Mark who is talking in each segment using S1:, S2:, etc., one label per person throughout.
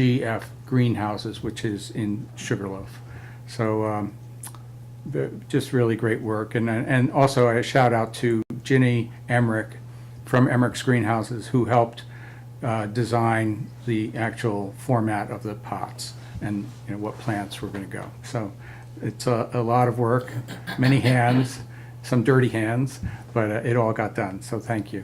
S1: GF Greenhouses, which is in Sugarloaf. So um, the- just really great work. And, and also a shout out to Ginny Emmerich from Emmerich's Greenhouses, who helped uh, design the actual format of the pots and, you know, what plants were going to go. So it's a, a lot of work, many hands, some dirty hands, but uh, it all got done. So thank you.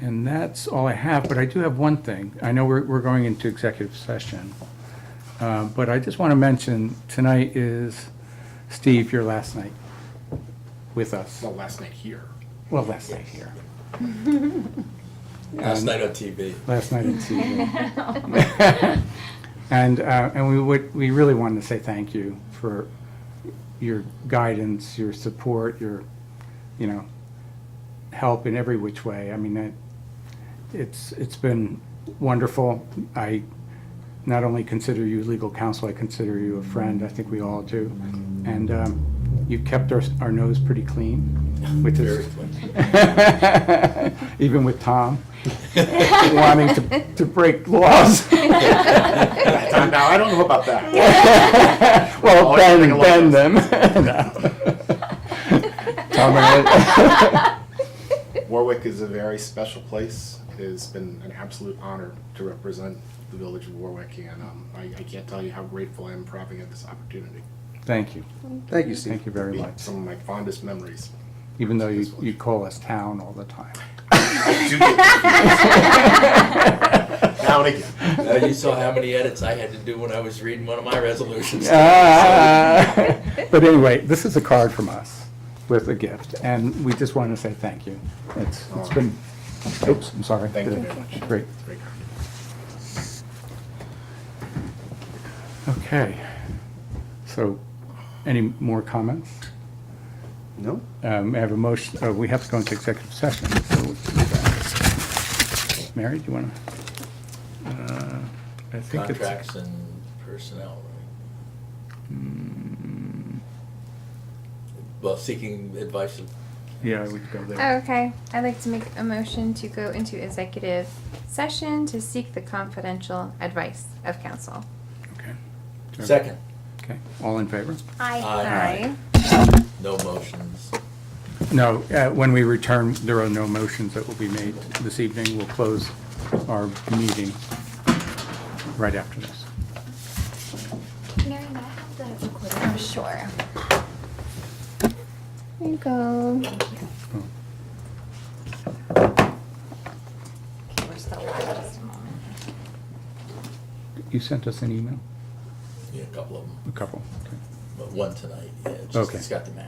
S1: And that's all I have, but I do have one thing. I know we're, we're going into executive session. Uh, But I just want to mention, tonight is, Steve, your last night with us.
S2: Well, last night here.
S1: Well, last night here,
S3: Last night on TV.
S1: last night at TV. And, uh, and we would, we really wanted to say thank you for your guidance, your support, your, you know, help in every which way. I mean, it, it's, it's been wonderful. I not only consider you legal counsel, I consider you a friend. I think we all do. And um, you kept our, our nose pretty clean, which is. Even with Tom wanting to, to break laws.
S2: Now, I don't know about that.
S1: Well,
S2: Oh, I should
S1: bend,
S2: take a
S1: bend
S2: look
S1: them. No. Tom and I-
S2: Warwick is a very special place. It's been an absolute honor to represent the village of Warwick, and um, I, I can't tell you how grateful I am for having this opportunity.
S1: Thank you.
S3: Thank you, Steve.
S1: Thank you very
S2: Be
S1: much.
S2: Some of my fondest memories.
S1: Even though you, you call us town all the time.
S2: I do get confused. Now and again.
S3: Now, Uh, you saw how many edits I had to do when I was reading one of my resolutions.
S1: Ah. But anyway, this is a card from us with a gift, and we just wanted to say thank you. It's, it's been, oops, I'm sorry.
S2: Thank you very much.
S1: Great.
S2: Great comment.
S1: Okay. So, any more comments?
S2: No?
S1: Um, I have a motion, oh, we have to go into executive session. so we'll do that. Mary, do you want to? I think it's.
S3: Contracts and personnel, right? Well, seeking advice of,
S1: Yeah, we could go there.
S4: Oh, Okay, I'd like to make a motion to go into executive session to seek the confidential advice of counsel.
S1: Okay.
S3: second,
S1: Okay, all in favor?
S4: Aye.
S3: Aye. no motions.
S1: No, uh, when we return, there are no motions that will be made this evening. We'll close our meeting right after this.
S5: Mary, may I have the recorder? I'm sure.
S4: There you go.
S1: Oh,
S5: Okay, we're still live, just a moment.
S1: You sent us an email?
S3: Yeah, a couple of them,
S1: A couple. Okay.
S3: but one tonight, yeah, it's
S1: Okay.
S3: just, it's got the map.